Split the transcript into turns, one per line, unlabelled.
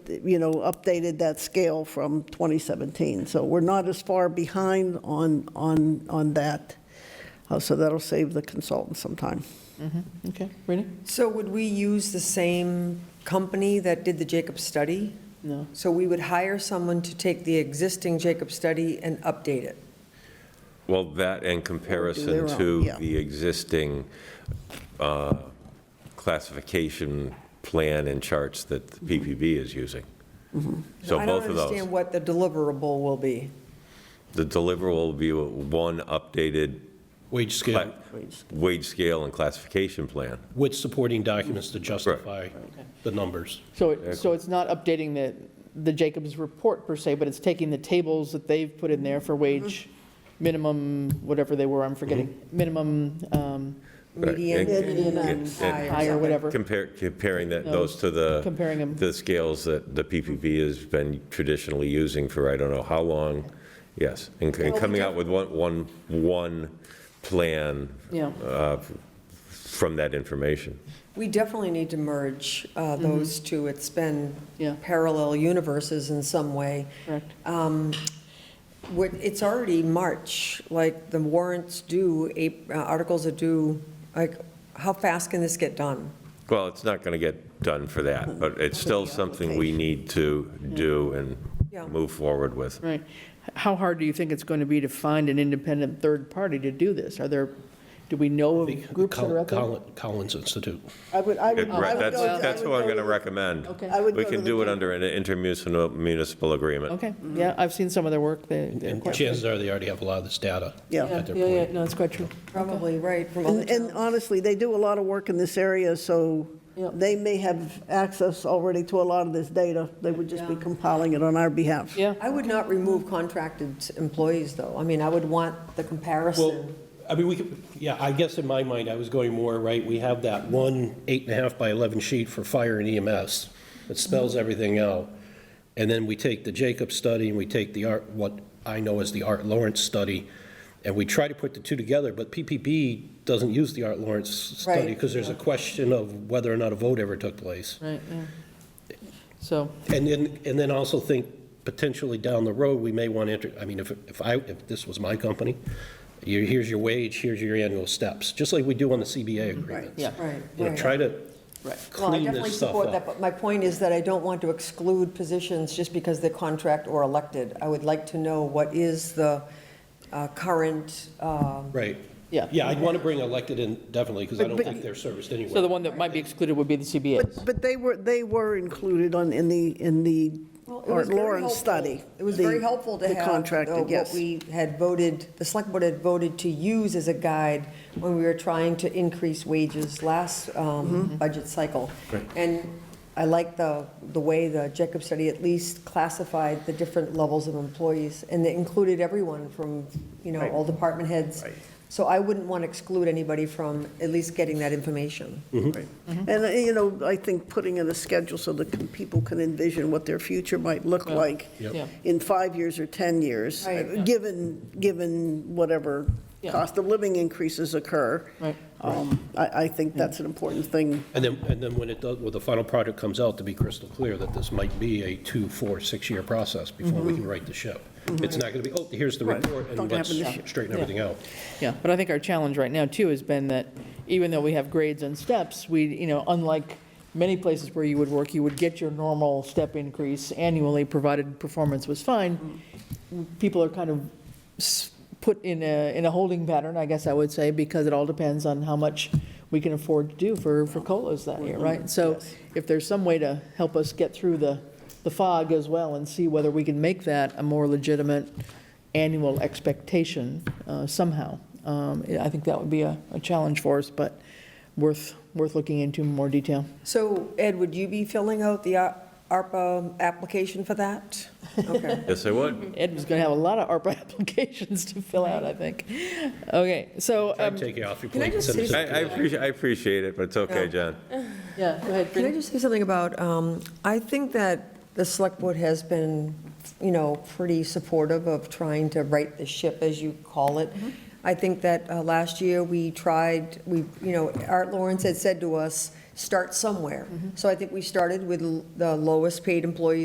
you know, updated that scale from 2017. So we're not as far behind on, on, on that. Uh, So that'll save the consultant some time.
Okay, ready?
So would we use the same company that did the Jacob study?
No.
So we would hire someone to take the existing Jacob study and update it?
Well, that in comparison
own,
to
yeah.
the existing uh, classification plan and charts that the PPB is using. So both of
I don't understand
those.
what the deliverable will be.
The deliverable will be one updated
Wage
cla-
scale
wage scale and classification plan.
with supporting documents to justify the numbers.
So, it- so it's not updating the, the Jacobs report per se, but it's taking the tables that they've put in there for wage minimum, whatever they were, I'm forgetting, minimum, um,
Right,
Median
and-
Median
and-
high or
and
high or whatever,
Compare, comparing that, those to the,
comparing them.
the scales that the PPP has been traditionally using for I don't know how long, yes. And and coming out with one, one, one plan
Yeah,
uh, from that information.
We definitely need to merge uh, those two. It's been
Mm-hmm. Yeah.
parallel universes in some way.
correct.
What- It's already March, like the warrants due, Ap- uh, articles are due, like, how fast can this get done?
Well, it's not going to get done for that, but it's still something we need to do
Yeah.
and move forward with.
Right. How hard do you think it's going to be to find an independent third party to do this? Are there, do we know of groups that are out there?
Collin- Collins Institute.
I would, I
It-
would. I
Right,
would
that's,
go- I
that's
would
what I'm
go
going to
to-
recommend.
Okay.
I would
We
go
can
to
do it
the-
under an intermunicipal municipal agreement.
Okay, yeah, I've seen some of their work, they. they're
And
quite-
chances are they already have a lot of this data.
Yeah.
Yeah,
at their
yeah, yeah,
point.
no, it's quite true.
Probably, right, from other
And and honestly, they do a lot of work in this area, so
Yep.
they may have access already to a lot of this data. They would just be compiling it on our behalf.
Yeah,
I would not remove contracted employees, though. I mean, I would want the
Well,
comparison.
I mean, we could, yeah, I guess in my mind, I was going more, right, we have that one eight and a half by 11 sheet for fire and EMS that spells everything out. And then we take the Jacob study and we take the Art, what I know as the Art Lawrence study, and we try to put the two together, but PPP doesn't use the Art Lawrence study
Right.
because there's a question of whether or not a vote ever took place.
right, yeah. So,
And then, and then also think potentially down the road, we may want to, enter- I mean, if, if I, if this was my company, you- here's your wage, here's your annual steps, just like we do on the CBA agreements.
yeah,
Right,
You know,
right.
try to
Right.
Well, I
clean
definitely
this stuff
support that,
up.
but my point is that I don't want to exclude positions just because they're contract or elected. I would like to know what is the uh, current, um,
Right.
Yeah.
Yeah, I'd want to bring elected in definitely, because I
But-
don't
but-
think they're serviced
so the
anyway.
one that might be excluded would be the CBAs.
But, but they were, they were included on, in the, in the
Well, it was
Art
very
Lawrence
helpful.
study.
It was
the-
very helpful to
the
have uh,
contracted,
what
yes.
we had voted, the select board had voted to use as a guide when we were trying to increase wages last
Mm-hmm.
um, budget cycle. And I like the, the way the Jacob study at least classified the different levels of employees, and they included everyone from, you know, all department heads. So I wouldn't want to exclude anybody from at least getting that information.
Mm-hmm.
And, uh, you know, I think putting in a schedule so that can- people can envision what their future might look like
Yeah.
in five years or 10 years,
Right.
uh, given, given whatever
Yeah.
cost of living increases occur.
Right.
Um, I, I think that's an important thing.
And then, and then when it does, when the final product comes out, to be crystal clear that this might be a two, four, six-year process before we can right the ship. It's not going to be, oh, here's the
Right.
report,
Don't
and
happen
let's
this year.
straighten everything out.
Yeah, but I think our challenge right now too has been that even though we have grades and steps, we, you know, unlike many places where you would work, you would get your normal step increase annually, provided performance was fine. People are kind of s- put in a, in a holding pattern, I guess I would say, because it all depends on how much we can afford to do for, for COLAs that year, right? So if there's some way to help us get through the, the fog as well and see whether we can make that a more legitimate annual expectation uh, somehow, um, I think that would be a, a challenge for us, but worth, worth looking into in more detail.
So Ed, would you be filling out the A- ARPA application for that? Okay.
Yes, I would.
Ed was going to have a lot of ARPA applications to fill out, I think. Okay, so,
Try
um,
to take it off your
can I
plate. and
just
send
say
us
I,
a-
I appreciate, I appreciate it, but it's okay, John.
yeah, go ahead.
Can I
Bree.
just say something about, um, I think that the select board has been, you know, pretty supportive of trying to right the ship, as you call it. I think that uh, last year, we tried, we, you know, Art Mm-hmm. Lawrence had said to us, start somewhere. So I think we started with l- the lowest paid employees